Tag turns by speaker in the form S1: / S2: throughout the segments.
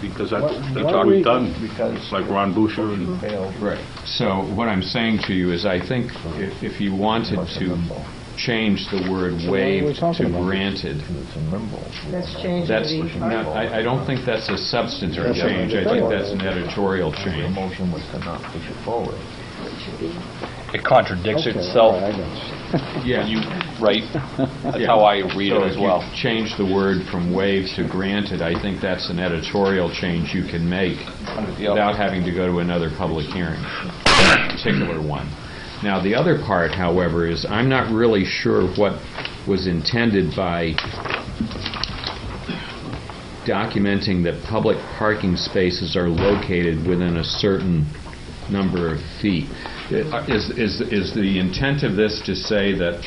S1: because that-
S2: What-
S1: that's
S2: what
S1: already
S2: we-
S1: done.
S2: because-
S1: It's like Ron Boucher and
S2: failed.
S3: Right. So what I'm saying to you is, I think if if you wanted to change the word waived to granted,
S2: It's a nimble.
S4: Let's change
S3: that's,
S4: the
S3: not- I I don't think that's a substantive
S2: That's a-
S3: change. I think that's an editorial
S2: The
S3: change.
S2: motion was to not push it forward.
S5: It contradicts
S2: Okay, all right,
S5: itself,
S2: I got
S3: Yeah.
S5: you, right? That's
S3: Yeah.
S5: how I read
S3: So
S5: it
S3: if
S5: as
S3: you
S5: well.
S3: Change the word from waived to granted, I think that's an editorial change you can make
S5: Yep.
S3: without having to go to another public hearing, particular one. Now, the other part, however, is I'm not really sure what was intended by documenting that public parking spaces are located within a certain number of feet. Uh, Is, is, is the intent of this to say that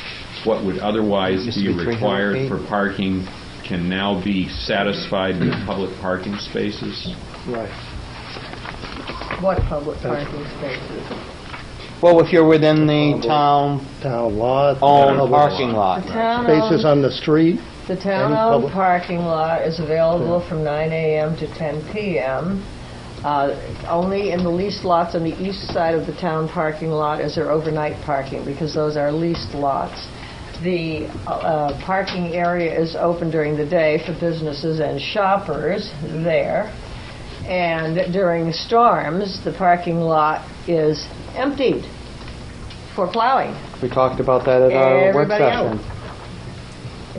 S3: what would otherwise be required for parking can now be satisfied with public parking spaces?
S4: what public parking spaces.
S6: Well, if you're within the town-owned
S7: Town lot.
S6: parking lot.
S4: The town
S7: Spaces
S4: owned,
S7: on the street.
S4: the
S7: any
S4: town-owned
S7: public-
S4: parking lot is available from 9 AM to 10 PM. Uh, Only in the leased lots on the east side of the town parking lot is there overnight parking, because those are leased lots. The uh, parking area is open during the day for businesses and shoppers there. And during storms, the parking lot is emptied for plowing.
S6: We talked about that at our work
S4: Everybody out.
S6: session.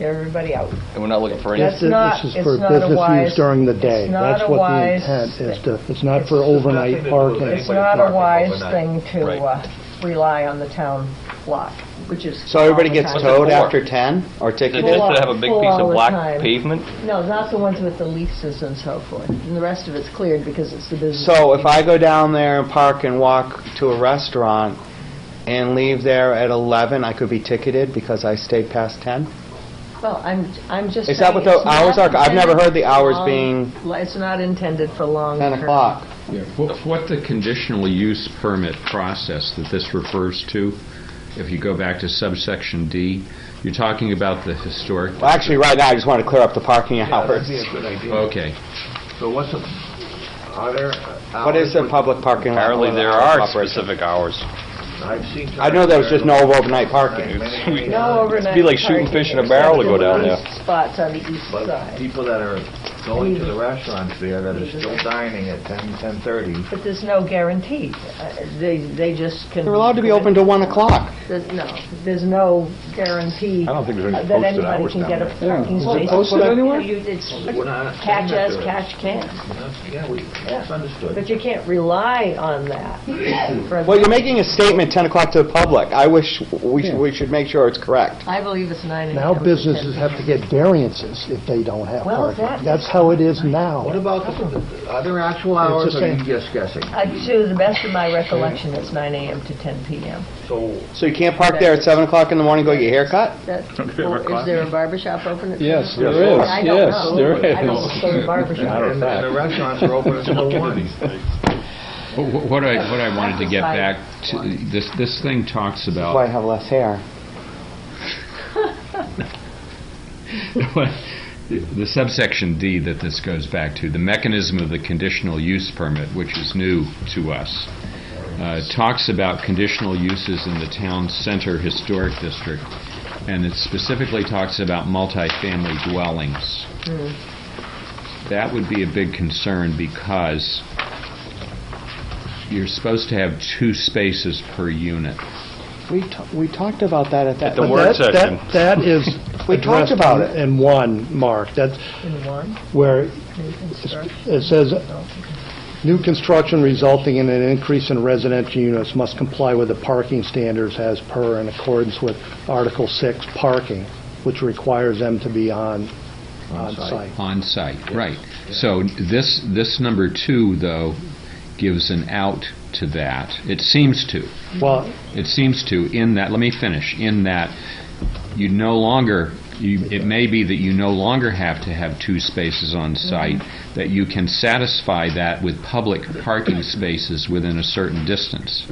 S4: everybody out.
S5: And we're not looking for any,
S4: That's
S7: This is-
S4: not-
S7: This is
S4: it's
S7: for
S4: not a
S7: business
S4: wise-
S7: use during the
S4: it's
S7: day.
S4: not
S7: That's
S4: a
S7: what the
S4: wise
S7: intent is
S4: thing.
S7: to, it's not for
S2: It's just
S7: overnight
S2: nothing to do with
S7: parking.
S4: It's
S2: Anybody
S4: not a
S2: parking
S4: wise thing
S2: overnight.
S4: to
S5: Right.
S4: uh, rely on the town lot, which is.
S6: So everybody gets
S4: all the time.
S6: towed
S5: What's it for?
S6: after 10 or
S5: they
S6: ticketed?
S4: Full
S5: just
S4: all-
S5: have a big
S4: full
S5: piece
S4: all
S5: of
S4: the
S5: black
S4: time.
S5: pavement.
S4: No, not the ones with the leases and so forth. And the rest of it's cleared because it's the business.
S6: So if I go down there and park and walk to a restaurant and leave there at 11, I could be ticketed because I stayed past 10?
S4: Well, I'm, I'm just saying.
S6: Is that what the
S4: it's not
S6: hours are? I've never
S4: intended
S6: heard the
S4: for
S6: hours
S4: long-
S6: being-
S4: It's not intended for long.
S6: 10
S4: term.
S6: o'clock.
S3: What what the conditional use permit process that this refers to, if you go back to subsection D, you're talking about the historic,
S6: Well, actually, right now, I just want to clear up the parking hours.
S3: okay.
S2: So what's, the- are there hours?
S6: What is a public parking lot?
S5: Apparently, there are specific hours.
S2: I've seen
S6: I know there was just no overnight parking.
S2: parking.
S4: No overnight.
S5: It'd be like shooting
S4: parking
S5: fish in a barrel to go
S4: except
S5: down
S4: in
S5: there.
S4: these Spots on the east
S2: But
S4: side.
S2: people that are going to the restaurants there that are still dining at 10, 10:30,
S4: But there's no guarantee. Uh, They, they just can.
S6: They're allowed to be open to 1 o'clock.
S4: There's no, there's no guarantee
S2: I don't think there's any
S4: uh, that
S2: posted
S4: anybody
S2: hours
S4: can
S2: down
S4: get a
S2: there.
S4: parking
S2: Is it
S4: space.
S2: posted
S4: You-
S2: anywhere?
S4: you- it's
S2: We're not
S4: Catch
S2: saying
S4: as
S2: that there is.
S4: catch can.
S2: yeah, we, that's understood.
S4: But you can't rely on that. for-
S6: Well, you're making a statement 10 o'clock to the public. I wish, we should, we should make sure it's correct.
S4: I believe it's nine and a
S7: Now
S4: half.
S7: businesses have to get variances if they don't have
S4: Well, that-
S7: parking. That's how it is
S2: What
S7: now.
S2: about, the- the- are there actual hours,
S7: the
S2: or are you
S7: same.
S2: just guessing?
S4: Uh, To the best of my recollection, it's nine AM to ten PM.
S2: So,
S6: So you can't park there at 7 o'clock in the morning and go get your haircut?
S4: That-
S1: ever
S4: or Is
S1: caught
S4: there a barber shop open at?
S8: Yes,
S4: seven?
S8: there is.
S4: I don't
S8: Yes,
S4: know.
S8: there
S4: I don't go to barber shops.
S2: and and the restaurants are open until one.
S3: Wh- wh- What I, what I wanted to get back to, this, this thing talks
S6: That's why I
S3: about,
S6: have less hair.
S3: the subsection D that this goes back to, the mechanism of the conditional use permit, which is new to us, uh, talks about conditional uses in the town center historic district, and it specifically talks about multifamily dwellings. That would be a big concern because you're supposed to have two spaces per unit.
S6: We, ta- we talked about that at that.
S5: the
S7: But
S5: work
S7: that-
S5: session.
S7: that- That is.
S6: We talked
S7: addressed
S6: about it.
S7: In one, Mark, that's
S4: In one,
S7: where
S4: new construction.
S7: it says, "New construction resulting in an increase in residential units must comply with the parking standards as per in accordance with Article 6 parking," which requires them to be on, on site.
S3: On-site, right. So this, this number two, though, gives an out to that. It seems to.
S7: Well,
S3: It seems to, in that, let me finish, in that you no longer, you, it may be that you no longer have to have two spaces on site, that you can satisfy that with public parking spaces within a certain distance.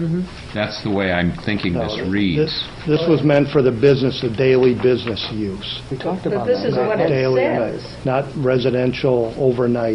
S3: That's the way I'm thinking this
S7: this,
S3: reads.
S7: this was meant for the business, the daily business use.
S6: We talked
S4: But
S6: about
S4: this
S6: that.
S4: is what it
S7: Daily,
S4: says.
S7: Not residential overnight